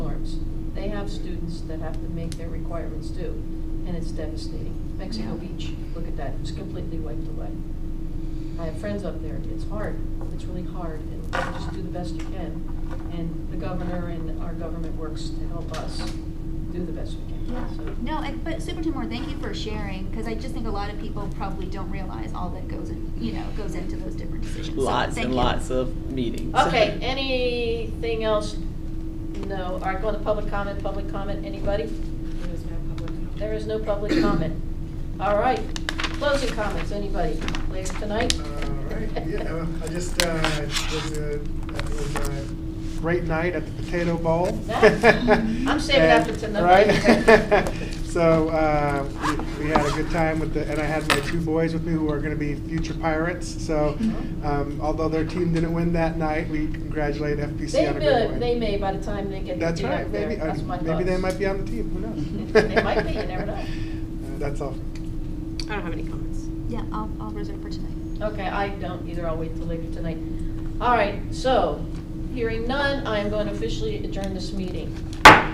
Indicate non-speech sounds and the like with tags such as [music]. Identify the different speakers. Speaker 1: have students that have to make their requirements due, and it's devastating. Mexico
Speaker 2: Yeah.
Speaker 1: Beach, look at that, it's completely wiped away. I have friends up there, it's hard, it's really hard, and you just do the best you can. And the governor and our government works to help us do the best we
Speaker 2: Yeah.
Speaker 1: can, so.
Speaker 2: No, and, but Superintendent Moore, thank you for sharing, because I just think a lot of people probably don't realize all that goes in, you know, goes into those different decisions. So,
Speaker 3: Lots
Speaker 2: thank
Speaker 3: and
Speaker 2: you.
Speaker 3: lots of meetings.
Speaker 1: Okay,
Speaker 3: [laughs]
Speaker 1: anything else? No, all right, go to public comment, public comment, anybody?
Speaker 4: There is no public comment.
Speaker 1: There is no public comment. All right, closing comments, anybody later tonight?
Speaker 5: All right,
Speaker 1: [laughs]
Speaker 5: yeah, well, I just, uh, it was a, it was a great night at the Potato Bowl.
Speaker 1: I'm saving
Speaker 5: [laughs]
Speaker 1: that for tonight.
Speaker 5: Right? [laughs] So, uh, we, we had a good time with the, and I had my two boys with me who are gonna be future pirates, so,
Speaker 1: Mm-hmm.
Speaker 5: um, although their team didn't win that night, we congratulate
Speaker 1: They
Speaker 5: FPC on a great
Speaker 1: may,
Speaker 5: win.
Speaker 1: they may by the time they get to
Speaker 5: That's
Speaker 1: be
Speaker 5: right,
Speaker 1: up there,
Speaker 5: maybe, uh,
Speaker 1: that's my thoughts.
Speaker 5: maybe they might be on the team, who knows?
Speaker 1: [laughs] They might be, you never know.
Speaker 5: [laughs] Uh, That's all.
Speaker 4: I don't have any comments.
Speaker 2: Yeah, I'll, I'll reserve for tonight.
Speaker 1: Okay, I don't either, I'll wait till later tonight. All right, so, hearing none, I am going to officially adjourn this meeting.